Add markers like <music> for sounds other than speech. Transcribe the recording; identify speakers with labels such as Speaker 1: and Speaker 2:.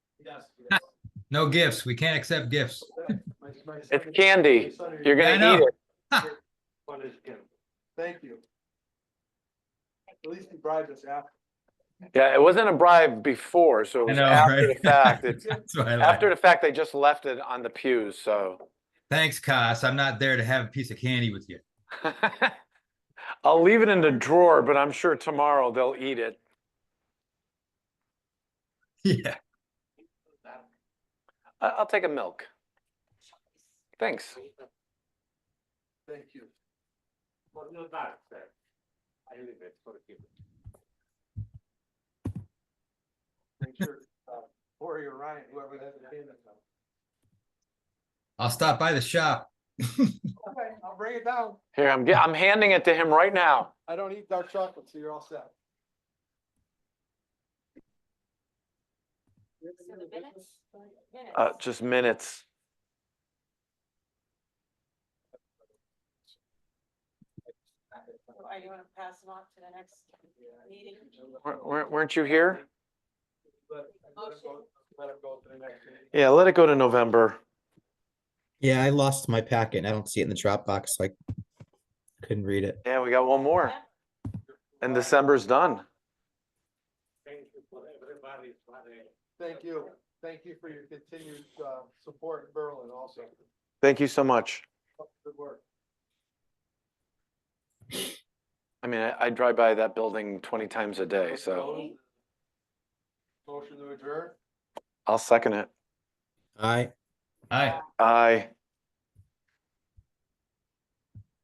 Speaker 1: No gifts. We can't accept gifts. <laughs>
Speaker 2: It's candy. You're
Speaker 1: I
Speaker 2: gonna
Speaker 1: know.
Speaker 2: eat it.
Speaker 3: Thank you. At least he bribed us after.
Speaker 2: Yeah, it wasn't a bribe before, so it
Speaker 1: I
Speaker 2: was
Speaker 1: know,
Speaker 2: after the
Speaker 1: right? <laughs>
Speaker 2: fact. It's
Speaker 1: That's what I like.
Speaker 2: after the fact, they just left it on the pews, so. <laughs>
Speaker 1: Thanks, Cos. I'm not there to have a piece of candy with you. <laughs>
Speaker 2: I'll leave it in the drawer, but I'm sure tomorrow they'll eat it.
Speaker 1: Yeah.
Speaker 2: I- I'll take a milk. Thanks.
Speaker 3: Thank you. Make sure, uh, Lori or Ryan, whoever that is.
Speaker 1: I'll stop by the shop.
Speaker 3: Okay, I'll bring it down.
Speaker 2: Here, I'm, ge- I'm handing it to him right now.
Speaker 3: I don't eat dark chocolate, so you're all set.
Speaker 4: So the minutes, Oh, minutes.
Speaker 2: Uh, just minutes.
Speaker 4: So Are you gonna pass them off to the next meeting?
Speaker 2: Wer- wer- Weren't you here?
Speaker 3: Let it go- let it go to the next meeting.
Speaker 2: Yeah, let it go to November.
Speaker 5: Yeah, I lost my packet. and I don't see it in the Dropbox, so I couldn't read it.
Speaker 2: Yeah, we got one more. And December's done.
Speaker 3: Thank you. Thank you for your continued, uh, support in Berlin also.
Speaker 2: Thank you so much.
Speaker 3: Good work.
Speaker 2: I mean, I, I drive by that building twenty times a day, so
Speaker 3: Motion to adjourn?
Speaker 2: I'll second it.
Speaker 5: All right.
Speaker 1: Hi.
Speaker 2: Aye.